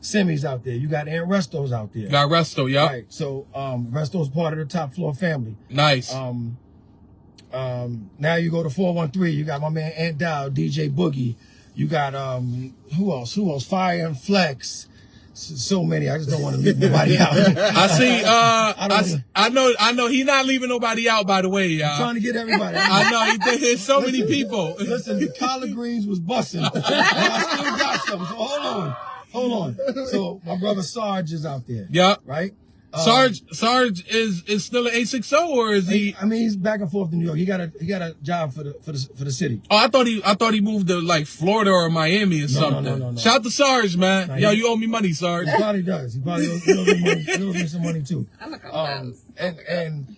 Simi's out there. You got Aunt Resto's out there. Got Resto, yeah. Right. So um, Resto's part of the top floor family. Nice. Um, um, now you go to 413. You got my man Ant Dow, DJ Boogie. You got um, who else? Who else? Fire and Flex. So, so many. I just don't want to leave nobody out. I see. Uh, I, I don't s- wanna- I know. I know. He's not leaving nobody out. By the way, y'all. trying to get everybody. I know. He, think there's so many people. Listen, the collard greens was busting. I still got some. So hold on. Hold on. So my brother Sarge is out there. Yep. Right? Um, Sarge. Sarge is is still an eight six zero, or is he- he? I mean, he's back and forth to New York. He got a he got a job for the for the for the city. Oh, I thought he. I thought he moved to like Florida or Miami or no, something. no, no, no. Shout to Sarge, man. No, Yo, he- you owe me money, Sarge. He probably does. He probably owes, he owes me money, he owes me some money too. I'm a couple Um, times. and and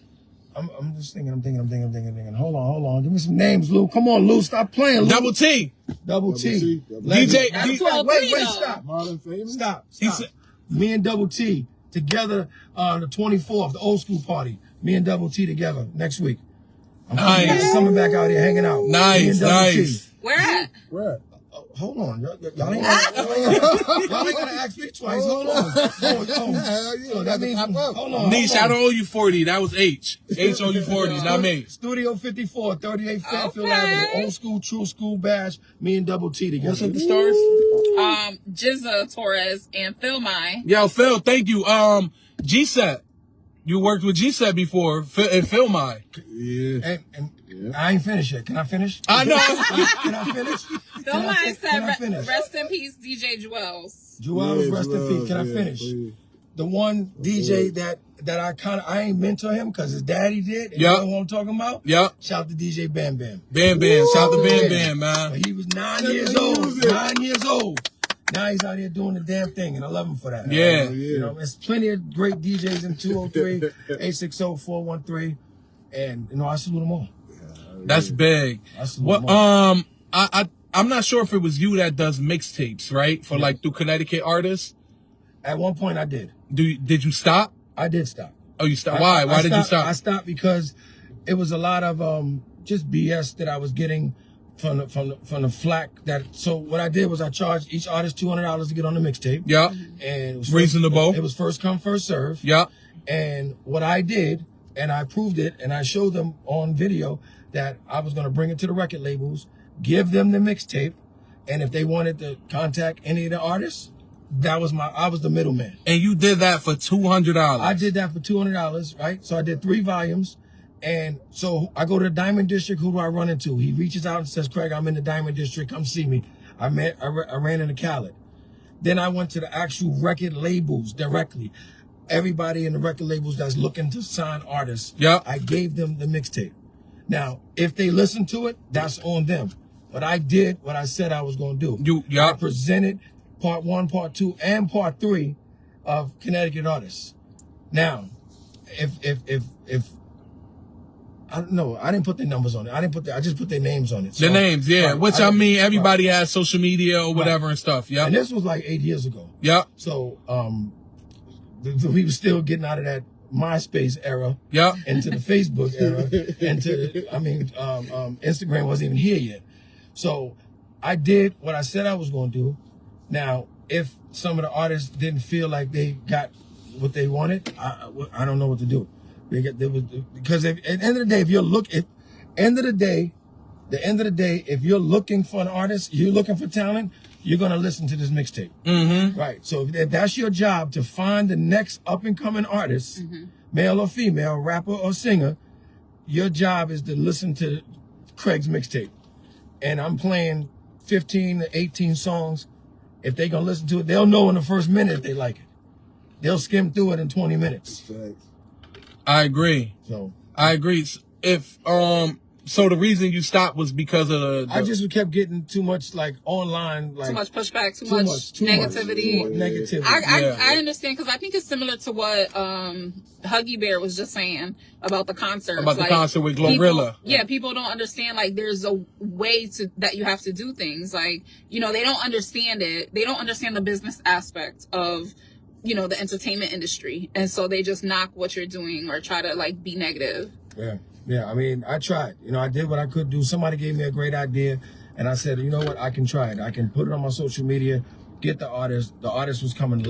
I'm I'm just thinking. I'm thinking. I'm thinking. I'm thinking. thinking. Hold on. Hold on. Give me some names, Lou. Come on, Lou. Stop playing, Lou. Double T. Double T. Double T, double Legend. T. DJ Matter of D- fact, Wait, wait, Well, stop. Modern famous. Stop. He stop. said- me and Double T together on the 24th, the old school party. Me and Double T together next week. I'm coming back- Nice. coming back out here hanging out. Me Nice. and Double T. Nice. Where at? Where? at? Oh, hold on. Y'all, y'all ain't gonna, y'all ain't gonna ask me twice. Hold on. Oh, oh. Hell yeah, So that that's a means, pop hold up. on. Niche. I hold on. don't owe you forty. That was H. H owe you forty, not me. Studio 54, 38 Fairfield Okay. Avenue. Old school, true school bash. Me and Double T together. What's up, the stars? Um, Jizza Torres and Phil Mai. Yo, Phil. Thank you. Um, G Set. You worked with G Set before. Phil, and Phil, my. Yeah. And, and I ain't finished yet. Can I finish? I know. Can I finish? Phil Can I Mai fin- can said, I finish? re- "Rest in peace, DJ Jewels." Jewel Yeah, rest in Jewel, peace. Can I yeah, finish? please. The one DJ that that I kind of I ain't mentor him because his daddy did. and Yeah. You know who I'm talking about? Yep. Shout to DJ Bam Bam. Bam Bam. Shout to Bam Bam, But man. he was nine Send years the old. music. Nine years old. Now he's out here doing the damn thing, and I love him for that. Yeah. You know, there's plenty of great DJs in 203, 860, 413, and you know I salute them all. That's big. That's a lot What more. um I, I I'm not sure if it was you that does mixtapes, right? For like through Connecticut artists. At one point, I did. Do you- did you stop? I did stop. Oh you stopped. I- Why? I Why did you stopped- stop? I stopped because it was a lot of um, just BS that I was getting from the, from the, from the flack. That so what I did was I charged each artist two hundred dollars to get on the mixtape. yeah. and it was Reasonable. First, it was first come first serve. Yeah. And what I did, and I proved it, and I showed them on video that I was going to bring it to the record labels, give them the mixtape, and if they wanted to contact any of the artists, that was my I was the middleman. And you did that for two hundred I dollars. did that for two hundred dollars, right? So I did three volumes, and so I go to the Diamond District. Who do I run into? He reaches out and says, "Craig, I'm in the Diamond District. Come see me." I met, I, ra- I ran into Khaled. Then I went to the actual record labels directly. Everybody in the record labels that's looking to sign artists, Yep. I gave them the mixtape. Now, if they listen to it, that's on them. But I did what I said I was going to do. You- yeah. I presented part one, part two, and part three of Connecticut artists. Now, if if if if I don't know, I didn't put their numbers on it. I didn't put the, I just put their names on it. The So- names, yeah. Right, Which I, I- mean everybody has social media or whatever and stuff. Yeah. And this was like eight years ago. Yeah. So um, th- th- we were still getting out of that MySpace era Yeah. into the Facebook era into the, I mean um, um, Instagram wasn't even here yet. So I did what I said I was going to do. Now, if some of the artists didn't feel like they got what they wanted, I, I, I don't know what to do. They get, they was, because if, at the end of the day, if you're look at end of the day, the end of the day, if you're looking for an artist, you're looking for talent, you're gonna listen to this mixtape. Mm-hmm. Right. So if, if that's your job to find the next up and coming artist, male or female, rapper or singer, your job is to listen to Craig's mixtape. And I'm playing 15 to 18 songs. If they gonna listen to it, they'll know in the first minute if they like it. They'll skim through it in 20 minutes. Facts. I agree. So I agree. S- If um so the reason you stopped was because of the, I just kept getting too much like online, like Too much pushback. Too, too much, much, too much, negativity. too much negativity. I, I, Yeah. I understand because I think it's similar to what um, Huggy Bear was just saying about the concert. About the concert with Glorilla. yeah, people don't understand like there's a way to that you have to do things. Like you know they don't understand it. They don't understand the business aspect of you know the entertainment industry, and so they just knock what you're doing or try to like be negative. Yeah, yeah. I mean, I tried. You know, I did what I could do. Somebody gave me a great idea, and I said, you know what, I can try it. I can put it on my social media. get the artist. The artist was coming